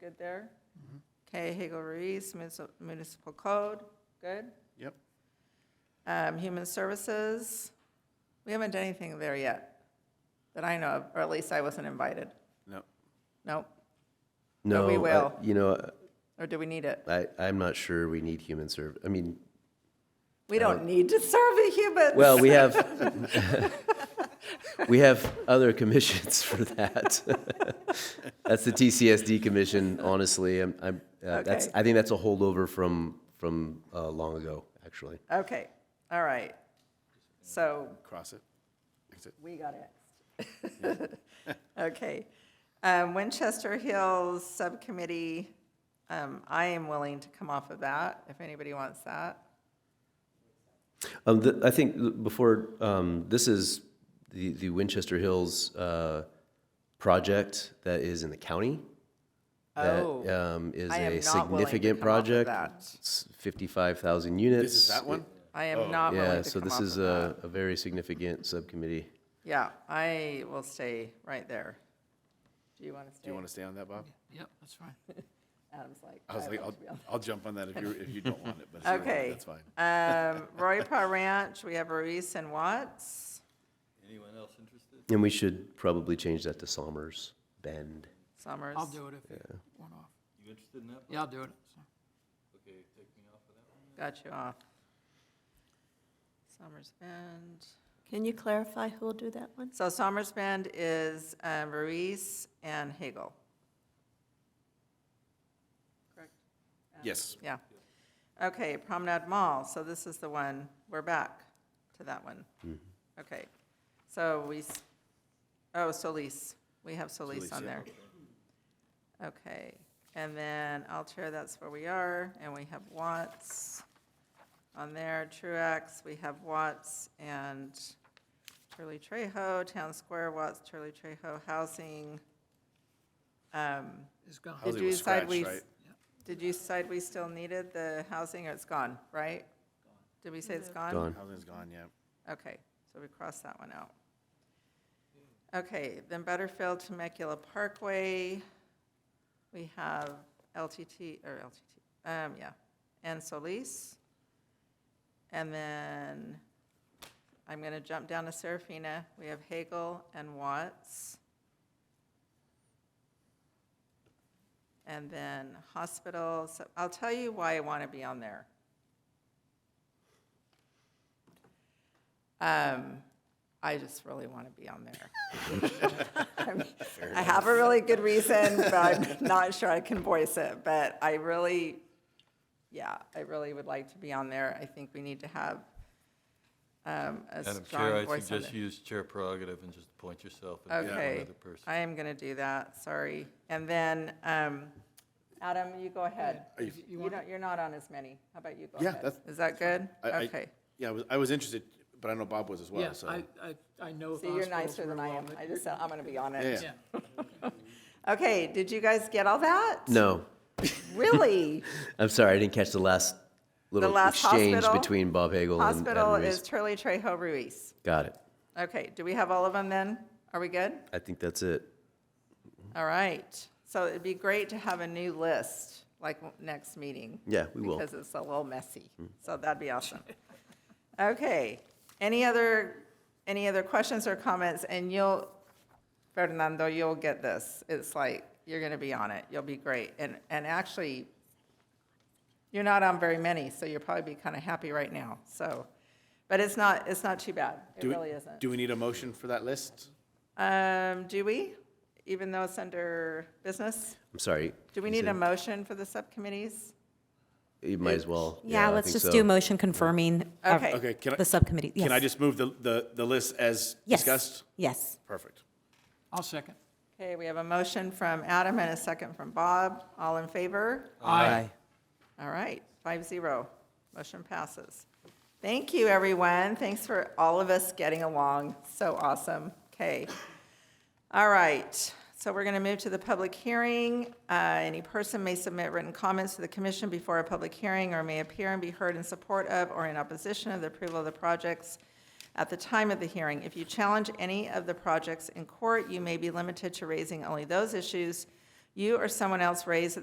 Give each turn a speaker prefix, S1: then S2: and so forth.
S1: good there. Okay, Hagel Ruiz, Municip- Municipal Code, good.
S2: Yep.
S1: Um, Human Services, we haven't done anything there yet, that I know of, or at least I wasn't invited.
S2: No.
S1: Nope.
S3: No,
S1: But we
S3: I-
S1: will.
S3: You know,
S1: Or do we need it?
S3: I, I'm not sure we need human serv, I mean,
S1: We don't need to serve the humans.
S3: Uh, well, we have, we have other commissions for that. That's the TCSD commission, honestly, I'm, I'm, uh, that's,
S1: Okay.
S3: I think that's a holdover from, from, uh, long ago, actually.
S1: Okay, all right. So
S2: Cross it. Fix it.
S1: we got it. Okay. Um, Winchester Hills Subcommittee, um, I am willing to come off of that, if anybody wants that.
S3: Um, th I think th- before, um, this is the, the Winchester Hills, uh, project that is in the county. that,
S1: Oh,
S3: um, Is
S1: I am
S3: a
S1: not willing to
S3: significant
S1: come off of
S3: project.
S1: that.
S3: It's fifty-five thousand units.
S2: This is that one?
S1: I am not
S3: Yeah,
S1: willing to
S3: so
S1: come
S3: this
S1: off of
S3: is
S1: that.
S3: a, a very significant subcommittee.
S1: Yeah, I will stay right there. Do you want to stay?
S2: Do you want to stay on that, Bob?
S4: Yep, that's fine.
S1: Adam's like.
S2: I was like, I'll, I'll jump on that if you, if you don't want it, but it's-
S1: Okay.
S2: that's fine.
S1: Um, Roy Pa Ranch, we have Ruiz and Watts,
S3: And we should probably change that to Somers Bend.
S1: Summers.
S4: I'll do it if you want off. You interested in that? Yeah, I'll do it. so.
S1: Got you off. Summers Bend.
S5: Can you clarify who will do that one?
S1: So Summers Bend is um, Ruiz and Hagel.
S2: Yes.
S1: Yeah. Okay, Promenade Mall, so this is the one, we're back to that one.
S2: Mm-hmm.
S1: Okay, so we, s- oh, Solis, we have Solis
S2: Solis,
S1: on
S2: yeah.
S1: there. Okay, and then Altair, that's where we are, and we have Watts on there, Truax, we have Watts and Turley Trejo, Town Square, Watts, Turley Trejo, Housing. Um,
S4: It's gone.
S2: How's
S1: Did
S2: it
S1: you
S2: with
S1: decide
S2: scratch,
S1: we,
S2: right?
S1: did you decide we still needed the housing, or it's gone, right? Did we say it's gone?
S3: Gone.
S2: Housing's gone, yeah.
S1: Okay, so we crossed that one out. Okay, then Butterfield Temecula Parkway, we have LTT, or LTT, um, yeah, and Solis. And then, I'm gonna jump down to Serafina, we have Hagel and Watts. And then hospitals, I'll tell you why I wanna be on there. Um, I just really want to be on there. I'm- I have a really good reason, but I'm not sure I can voice it, but I really, yeah, I really would like to be on there. I think we need to have, um, a
S6: Madam Chair,
S1: strong
S6: I
S1: voice on
S6: suggest
S1: it.
S6: you use chair prerogative and just appoint yourself and pick
S1: Okay,
S6: another person.
S1: I am going to do that, sorry. And then, um, Adam, you go ahead.
S2: Are you-
S1: You don't, you're not on as many. How about you go
S2: Yeah,
S1: ahead?
S2: that's-
S1: Is that good?
S2: I- I-
S1: Okay.
S2: Yeah, I was, I was interested, but I know Bob was as well,
S4: Yes,
S2: so.
S4: I, I, I know of
S1: See, you're
S4: hospitals
S1: nicer than
S4: real
S1: I
S4: well,
S1: am.
S4: but
S1: I
S4: you're-
S1: just, said I'm going to be on it.
S2: Yeah, yeah.
S4: Yeah.
S1: Okay, did you guys get all that?
S3: No,
S1: Really?
S3: I'm sorry, I didn't catch the last little
S1: last
S3: exchange
S1: hospital-
S3: between Bob Hagel and
S1: Hospital
S3: Adam
S1: is
S3: Ruiz.
S1: Turley Trejo Ruiz.
S3: Got it.
S1: Okay, do we have all of them then? Are we good?
S3: I think that's it.
S1: All right. So it'd be great to have a new list, like next meeting.
S3: Yeah, we will.
S1: Because it's a little messy. So that'd be awesome. Okay. Any other, any other questions or comments? And you'll, Fernando, you'll get this. It's like, you're going to be on it. You'll be great. And, and actually, you're not on very many, so you'll probably be kind of happy right now. So, but it's not, it's not too bad. It
S2: Do we-
S1: really isn't.
S2: Do we need a motion for that list?
S1: Um, do we? Even though it's under business?
S3: I'm sorry.
S1: Do we
S3: You
S1: need a
S3: said-
S1: motion for the subcommittees?
S3: You might as well.
S7: Yeah,
S3: I
S7: let's
S3: think
S7: just
S3: so.
S7: do motion confirming uh,
S1: Okay.
S2: Okay, can
S7: the
S2: I,
S7: subcommittee.
S2: can I
S7: Yes.
S2: just move the, the, the list as
S7: Yes.
S2: discussed?
S7: Yes.
S2: Perfect.
S4: I'll second.
S1: Okay, we have a motion from Adam and a second from Bob. All in favor?
S4: Aye.
S1: All right, five zero. Motion passes. Thank you, everyone. Thanks for all of us getting along. So awesome. Okay. All right, so we're going to move to the public hearing. Uh, Any person may submit written comments to the commission before a public hearing or may appear and be heard in support of or in opposition of the approval of the projects at the time of the hearing. If you challenge any of the projects in court, you may be limited to raising only those issues you or someone else raised at